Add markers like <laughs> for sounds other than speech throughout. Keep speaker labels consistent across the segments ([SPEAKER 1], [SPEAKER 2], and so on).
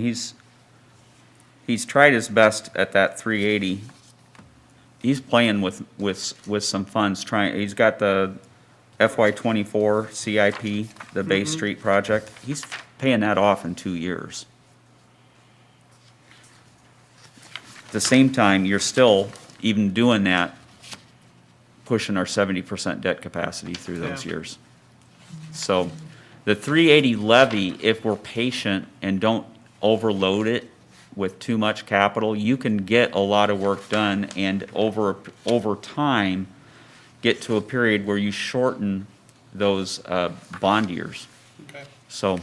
[SPEAKER 1] He's, he's tried his best at that three eighty. He's playing with, with, with some funds, trying, he's got the FY twenty-four CIP, the Bay Street project. He's paying that off in two years. At the same time, you're still, even doing that, pushing our seventy percent debt capacity through those
[SPEAKER 2] Yeah.
[SPEAKER 1] years. So the 380 levy, if we're patient and don't overload it with too much capital, you can get a lot of work done and over, over time, get to a period where you shorten those uh, bond years.
[SPEAKER 2] Okay.
[SPEAKER 1] So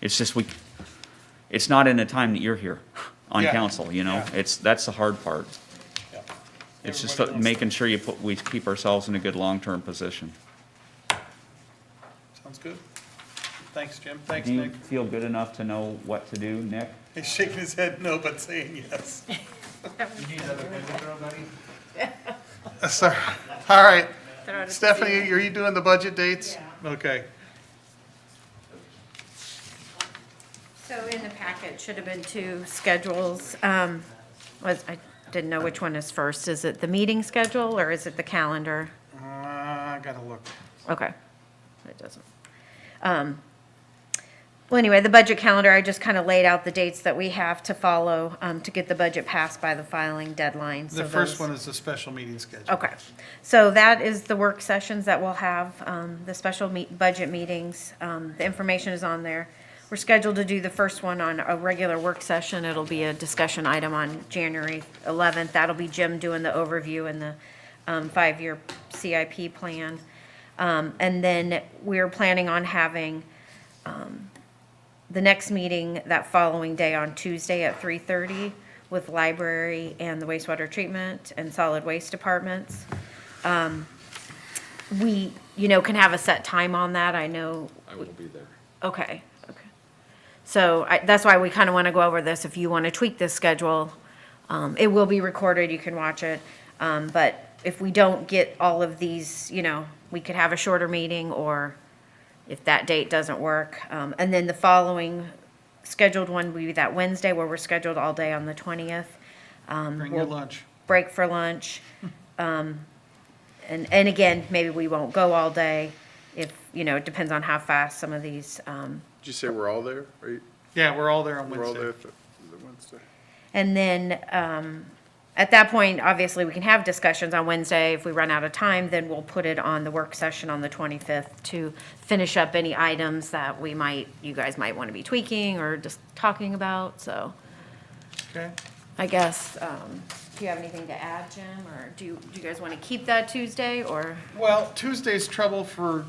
[SPEAKER 1] it's just, we, it's not in the time that you're here on
[SPEAKER 2] Yeah.
[SPEAKER 1] council, you know?
[SPEAKER 2] Yeah.
[SPEAKER 1] It's, that's the hard part.
[SPEAKER 2] Yeah.
[SPEAKER 1] It's just
[SPEAKER 2] Everybody wants-
[SPEAKER 1] making sure you put, we keep ourselves in a good long-term position.
[SPEAKER 2] Sounds good. Thanks, Jim. Thanks,
[SPEAKER 1] Do you
[SPEAKER 2] Nick.
[SPEAKER 1] feel good enough to know what to do, Nick?
[SPEAKER 2] He's shaking his head no, but saying yes.
[SPEAKER 3] <laughs>
[SPEAKER 2] Uh, Sorry. All right. Stephanie, are you doing the budget dates? Okay.
[SPEAKER 3] So in the packet should have been two schedules. um, Was, I didn't know which one is first. Is it the meeting schedule or is it the calendar?
[SPEAKER 2] Uh, I gotta look.
[SPEAKER 3] Okay, it doesn't. um, Well, anyway, the budget calendar, I just kind of laid out the dates that we have to follow um, to get the budget passed by the filing deadline.
[SPEAKER 2] The
[SPEAKER 3] So
[SPEAKER 2] first
[SPEAKER 3] those-
[SPEAKER 2] one is the special meeting schedule.
[SPEAKER 3] Okay, so that is the work sessions that we'll have, um, the special meet, budget meetings, um, the information is on there. We're scheduled to do the first one on a regular work session, it'll be a discussion item on January eleventh, that'll be Jim doing the overview and the, um, five-year CIP plan. Um, and then we're planning on having, the next meeting that following day on Tuesday at three thirty with library and the wastewater treatment and solid waste departments. Um, We, you know, can have a set time on that, I know,
[SPEAKER 4] I will be there.
[SPEAKER 3] okay, okay. So I, that's why we kind of want to go over this, if you want to tweak this schedule. Um, it will be recorded, you can watch it, um, but if we don't get all of these, you know, we could have a shorter meeting or if that date doesn't work. Um, and then the following scheduled one would be that Wednesday where we're scheduled all day on the twentieth
[SPEAKER 2] Bring your lunch.
[SPEAKER 3] break for lunch. Um, and, and again, maybe we won't go all day if, you know, it depends on how fast some of these, um,
[SPEAKER 4] Did you say we're all there? Are you,
[SPEAKER 2] Yeah, we're all there on
[SPEAKER 4] we're all there
[SPEAKER 2] Wednesday.
[SPEAKER 4] for the Wednesday?
[SPEAKER 3] and then, um, at that point, obviously, we can have discussions on Wednesday. If we run out of time, then we'll put it on the work session on the twenty-fifth to finish up any items that we might, you guys might want to be tweaking or just talking about, so.
[SPEAKER 2] Okay.
[SPEAKER 3] I guess, um, do you have anything to add, Jim, or do you, do you guys want to keep that Tuesday, or?
[SPEAKER 2] Well, Tuesday's trouble for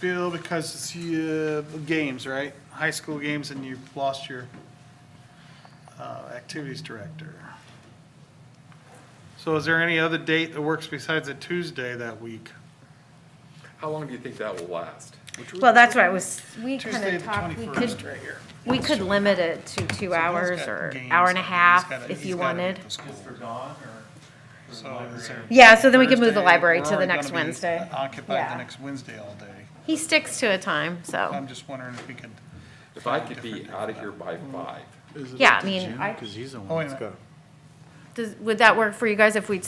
[SPEAKER 2] Bill because it's uh, games, right? High school games and you've lost your uh, activities director. So is there any other date that works besides a Tuesday that week?
[SPEAKER 4] How long do you think that will last?
[SPEAKER 3] Well, that's what I was, we kind
[SPEAKER 2] Tuesday,
[SPEAKER 3] of
[SPEAKER 2] the
[SPEAKER 3] talked, we
[SPEAKER 2] 21st,
[SPEAKER 3] could,
[SPEAKER 2] right here.
[SPEAKER 3] we could limit it to two hours
[SPEAKER 2] got
[SPEAKER 3] or
[SPEAKER 2] games
[SPEAKER 3] hour and a
[SPEAKER 2] that he's
[SPEAKER 3] half
[SPEAKER 2] gotta-
[SPEAKER 3] if
[SPEAKER 2] he's
[SPEAKER 3] you
[SPEAKER 2] gotta be at
[SPEAKER 3] wanted.
[SPEAKER 2] the school.
[SPEAKER 5] Just for dawn or? for
[SPEAKER 2] So is there-
[SPEAKER 5] library?
[SPEAKER 3] Yeah, so then we could move the
[SPEAKER 2] Thursday,
[SPEAKER 3] library
[SPEAKER 2] we're
[SPEAKER 3] to the
[SPEAKER 2] already
[SPEAKER 3] next
[SPEAKER 2] gonna be
[SPEAKER 3] Wednesday.
[SPEAKER 2] Occupied
[SPEAKER 3] Yeah.
[SPEAKER 2] the next Wednesday all day.
[SPEAKER 3] He sticks to a time, so,
[SPEAKER 2] I'm just wondering if we could,
[SPEAKER 4] If I could be out of here by five,
[SPEAKER 3] yeah, I mean, I,
[SPEAKER 2] oh, wait a minute.
[SPEAKER 3] does, would that work for you guys if we,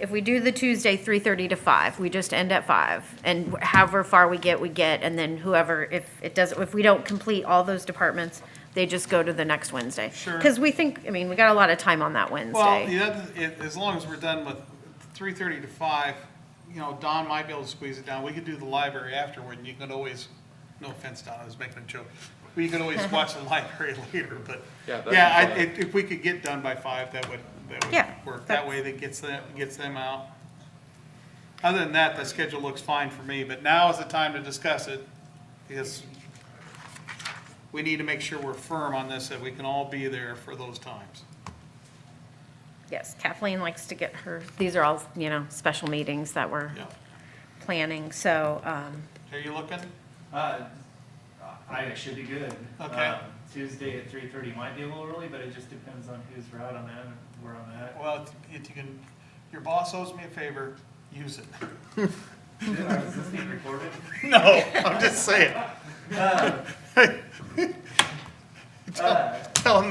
[SPEAKER 3] if we do the Tuesday, three thirty to five, we just end at five? And however far we get, we get, and then whoever, if it doesn't, if we don't complete all those departments, they just go to the next Wednesday.
[SPEAKER 2] Sure.
[SPEAKER 3] Because we think, I mean, we got a lot of time on that Wednesday.
[SPEAKER 2] Well, the other, it- as long as we're done with three thirty to five, you know, Don might be able to squeeze it down. We could do the library afterward, and you could always, no offense, Don, I was making a joke. We could always watch the library <laughs> later, but,
[SPEAKER 4] Yeah, that'd be
[SPEAKER 2] yeah, I,
[SPEAKER 4] fine.
[SPEAKER 2] if, if we could get done by five, that would,
[SPEAKER 3] Yeah,
[SPEAKER 2] that would work. That
[SPEAKER 3] that's-
[SPEAKER 2] way that gets them, gets them out. Other than that, the schedule looks fine for me, but now is the time to discuss it, because we need to make sure we're firm on this, that we can all be there for those times.
[SPEAKER 3] Yes, Kathleen likes to get her, these are all, you know, special meetings that we're
[SPEAKER 2] Yeah.
[SPEAKER 3] planning, so, um,
[SPEAKER 2] Are you looking?
[SPEAKER 5] Uh, I should be good.
[SPEAKER 2] Okay.
[SPEAKER 5] Um, Tuesday at three thirty might be a little early, but it just depends on who's out on that, and where I'm at.
[SPEAKER 2] Well, if you can, your boss owes me a favor, use it.
[SPEAKER 5] Is this being recorded?
[SPEAKER 2] No, I'm just saying.
[SPEAKER 5] Uh, uh,
[SPEAKER 2] tell them